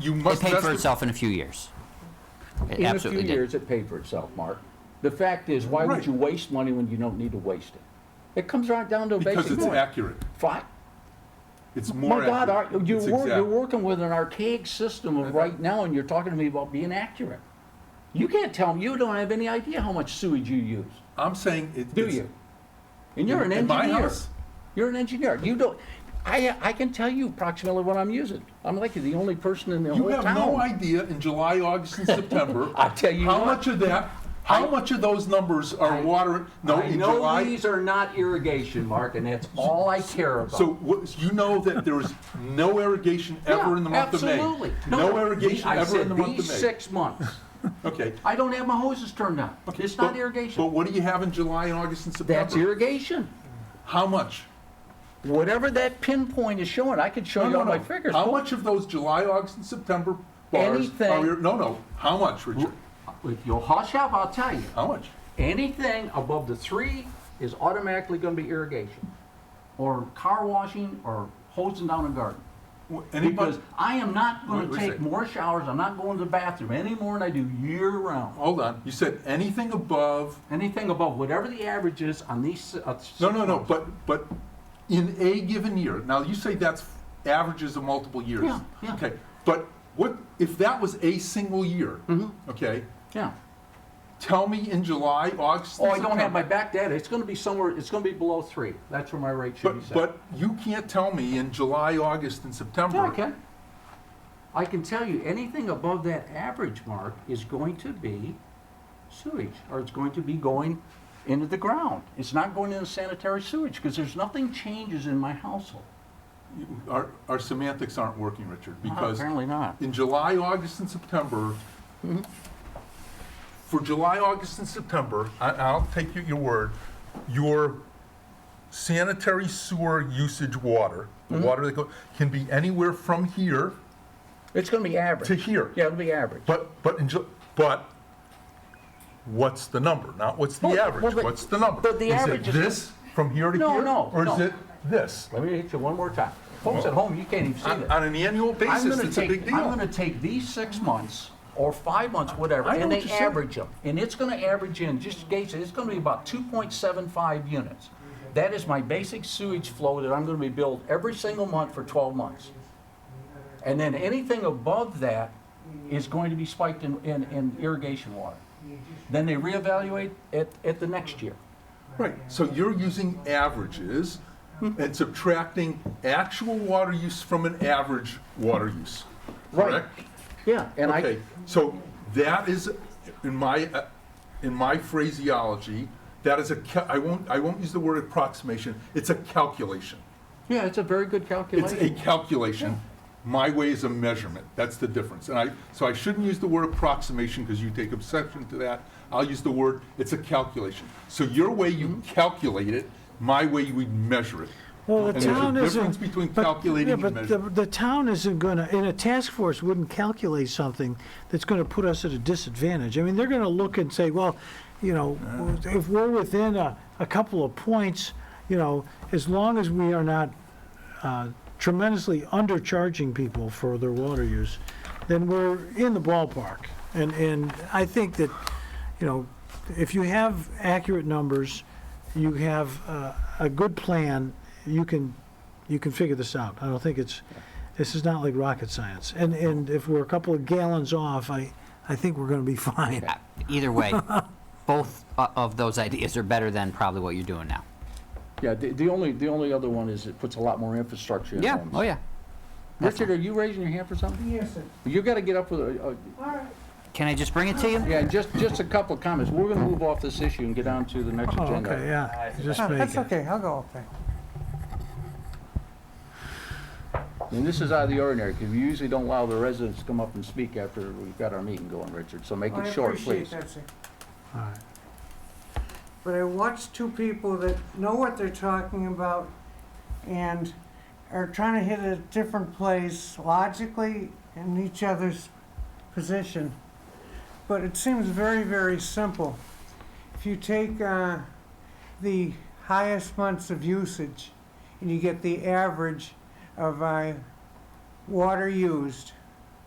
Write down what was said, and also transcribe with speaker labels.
Speaker 1: You
Speaker 2: It
Speaker 1: must,
Speaker 2: paid
Speaker 1: that's
Speaker 2: for
Speaker 1: the-
Speaker 2: itself in a few years. It
Speaker 3: In a few
Speaker 2: absolutely did.
Speaker 3: years, it paid for itself, Mark. The fact is, why would
Speaker 1: Right.
Speaker 3: you waste money when you don't need to waste it? It comes right down to a
Speaker 1: because
Speaker 3: basic
Speaker 1: it's
Speaker 3: point.
Speaker 1: accurate.
Speaker 3: Fine.
Speaker 1: It's more
Speaker 3: My
Speaker 1: accurate.
Speaker 3: God, Art, you're,
Speaker 1: It's
Speaker 3: wor-
Speaker 1: exact.
Speaker 3: you're working with an archaic system of right now, and you're talking to me about being accurate. You can't tell me, you don't have any idea how much sewage you use,
Speaker 1: I'm saying it.
Speaker 3: do
Speaker 1: it's-
Speaker 3: you? And you're an
Speaker 1: In my
Speaker 3: engineer.
Speaker 1: house?
Speaker 3: You're an engineer. You don't, I, I can tell you approximately what I'm using. I'm like the only person in the
Speaker 1: You
Speaker 3: whole
Speaker 1: have no
Speaker 3: town.
Speaker 1: idea in July, August, and September.
Speaker 3: I tell you
Speaker 1: How
Speaker 3: what.
Speaker 1: much of that, how much of those numbers are water, no,
Speaker 3: I
Speaker 1: in
Speaker 3: know
Speaker 1: July?
Speaker 3: these are not irrigation, Mark, and that's all I care about.
Speaker 1: So what, you know that there is no irrigation ever
Speaker 3: Yeah,
Speaker 1: in the month of May?
Speaker 3: Absolutely.
Speaker 1: No irrigation
Speaker 3: I
Speaker 1: ever
Speaker 3: said
Speaker 1: in the month of
Speaker 3: These
Speaker 1: May?
Speaker 3: six months.
Speaker 1: Okay.
Speaker 3: I don't have my hoses turned on. It's not
Speaker 1: But- But
Speaker 3: irrigation.
Speaker 1: what do you have in July, and August, and September?
Speaker 3: That's irrigation.
Speaker 1: How much?
Speaker 3: Whatever that pinpoint is showing, I could show
Speaker 1: No,
Speaker 3: you
Speaker 1: no,
Speaker 3: on my
Speaker 1: no.
Speaker 3: fingers.
Speaker 1: How
Speaker 3: Paul.
Speaker 1: much of those July, August, and September bars
Speaker 3: Anything.
Speaker 1: are, ir- no, no, how much, Richard?
Speaker 3: If you'll hush up, I'll tell you.
Speaker 1: How much?
Speaker 3: Anything above the three is automatically gonna be irrigation. Or car washing or hosing down a garden.
Speaker 1: Wh- Anybody?
Speaker 3: Because I am not
Speaker 1: Wait,
Speaker 3: gonna
Speaker 1: wait a
Speaker 3: take
Speaker 1: second.
Speaker 3: more showers, I'm not going to the bathroom any more than I do year round.
Speaker 1: Hold on, you said anything above,
Speaker 3: Anything above whatever the average is on these. uh, six
Speaker 1: no, no, no,
Speaker 3: months.
Speaker 1: but, but in a given year, now you say that's averages of multiple years.
Speaker 3: Yeah, yeah.
Speaker 1: Okay, but what, if that was a single year,
Speaker 3: Mm-hmm.
Speaker 1: okay,
Speaker 3: Yeah.
Speaker 1: tell me in July, August,
Speaker 3: Oh,
Speaker 1: and
Speaker 3: I don't have my
Speaker 1: September.
Speaker 3: back data. It's gonna be somewhere, it's gonna be below three. That's where my rate should be
Speaker 1: But,
Speaker 3: set.
Speaker 1: but you can't tell me in July, August, and September.
Speaker 3: Yeah, I can. I can tell you, anything above that average mark is going to be sewage, or it's going to be going into the ground. It's not going into sanitary sewage, because there's nothing changes in my household.
Speaker 1: You- Our, our semantics aren't working, Richard,
Speaker 3: Well,
Speaker 1: because
Speaker 3: Uh-huh, Apparently not.
Speaker 1: in July, August, and September, for July, August, and September, I- I'll take you your word, your sanitary sewer usage water, the
Speaker 3: Mm-hmm.
Speaker 1: water that go, can be anywhere from here
Speaker 3: It's gonna be
Speaker 1: to
Speaker 3: average.
Speaker 1: here.
Speaker 3: Yeah, it'll be average.
Speaker 1: But, but, in Ju- but what's the number? Not what's the
Speaker 3: Well, well,
Speaker 1: average,
Speaker 3: but-
Speaker 1: what's the number?
Speaker 3: but the average is-
Speaker 1: Is it this, from here to
Speaker 3: No,
Speaker 1: here?
Speaker 3: no,
Speaker 1: Or is
Speaker 3: no.
Speaker 1: it this?
Speaker 3: Let me hit you one more time. Folks at home, you can't even see
Speaker 1: On
Speaker 3: this.
Speaker 1: on an annual
Speaker 3: I'm
Speaker 1: basis,
Speaker 3: gonna
Speaker 1: it's a big
Speaker 3: take,
Speaker 1: deal.
Speaker 3: I'm gonna take these six months, or five months, whatever,
Speaker 1: I know
Speaker 3: and
Speaker 1: what
Speaker 3: they
Speaker 1: you're saying.
Speaker 3: average them. And it's gonna average in, just in case, it's gonna be about two point seven five units. That is my basic sewage flow that I'm gonna be billed every single month for twelve months. And then anything above that is going to be spiked in, in, in irrigation water. Then they reevaluate at, at the next year.
Speaker 1: Right, so you're using averages
Speaker 3: Hmm.
Speaker 1: and subtracting actual water use from an average water use,
Speaker 3: Right.
Speaker 1: correct?
Speaker 3: Yeah. And I,
Speaker 1: Okay, so that is, in my, uh, in my phraseology, that is a, ca- I won't, I won't use the word approximation, it's a calculation.
Speaker 3: yeah, it's a very good
Speaker 1: It's a
Speaker 3: calculation.
Speaker 1: calculation. My way is a measurement, that's the difference. And I, so I shouldn't use the word approximation because you take exception to that. I'll use the word, it's a calculation. So your way, you calculate it, my way, you would measure it.
Speaker 4: Well,
Speaker 1: And
Speaker 4: the
Speaker 1: there's a
Speaker 4: town isn't.
Speaker 1: difference between
Speaker 4: but-
Speaker 1: calculating
Speaker 4: yeah,
Speaker 1: and
Speaker 4: but the-
Speaker 1: measuring.
Speaker 4: The town isn't gonna, and a task force wouldn't calculate something that's gonna put us at a disadvantage. I mean, they're gonna look and say, well, you know,
Speaker 1: Ah.
Speaker 4: if we're within a, a couple of points, you know, as long as we are not uh, tremendously undercharging people for their water use, then we're in the ballpark. And, and I think that, you know, if you have accurate numbers, you have uh, a good plan, you can, you can figure this out. I don't think it's, this is not like rocket science. And, and if we're a couple of gallons off, I, I think we're gonna be fine.
Speaker 2: Uh, Either way, both o- of those ideas are better than probably what you're doing now.
Speaker 3: Yeah, the, the only, the only other one is it puts a lot more infrastructure in
Speaker 2: Yeah,
Speaker 3: homes.
Speaker 2: oh yeah.
Speaker 3: Richard, are you raising your hand for something?
Speaker 5: Yes, sir.
Speaker 3: You gotta get up with, a- a-
Speaker 2: Can I just bring it to you?
Speaker 3: yeah, just, just a couple of comments. We're gonna move off this issue and get on to the next
Speaker 4: Oh,
Speaker 3: agenda.
Speaker 4: okay, yeah, just
Speaker 5: Oh,
Speaker 4: make
Speaker 5: That's
Speaker 4: it.
Speaker 5: okay, I'll go up there.
Speaker 3: And this is out of the ordinary, because we usually don't allow the residents to come up and speak after we've got our meeting going, Richard, so make
Speaker 5: I
Speaker 3: it short,
Speaker 5: appreciate
Speaker 3: please.
Speaker 5: that, sir.
Speaker 4: All right.
Speaker 5: But I watched two people that know what they're talking about and are trying to hit a different place logically in each other's position. But it seems very, very simple. If you take uh, the highest months of usage and you get the average of uh, water used,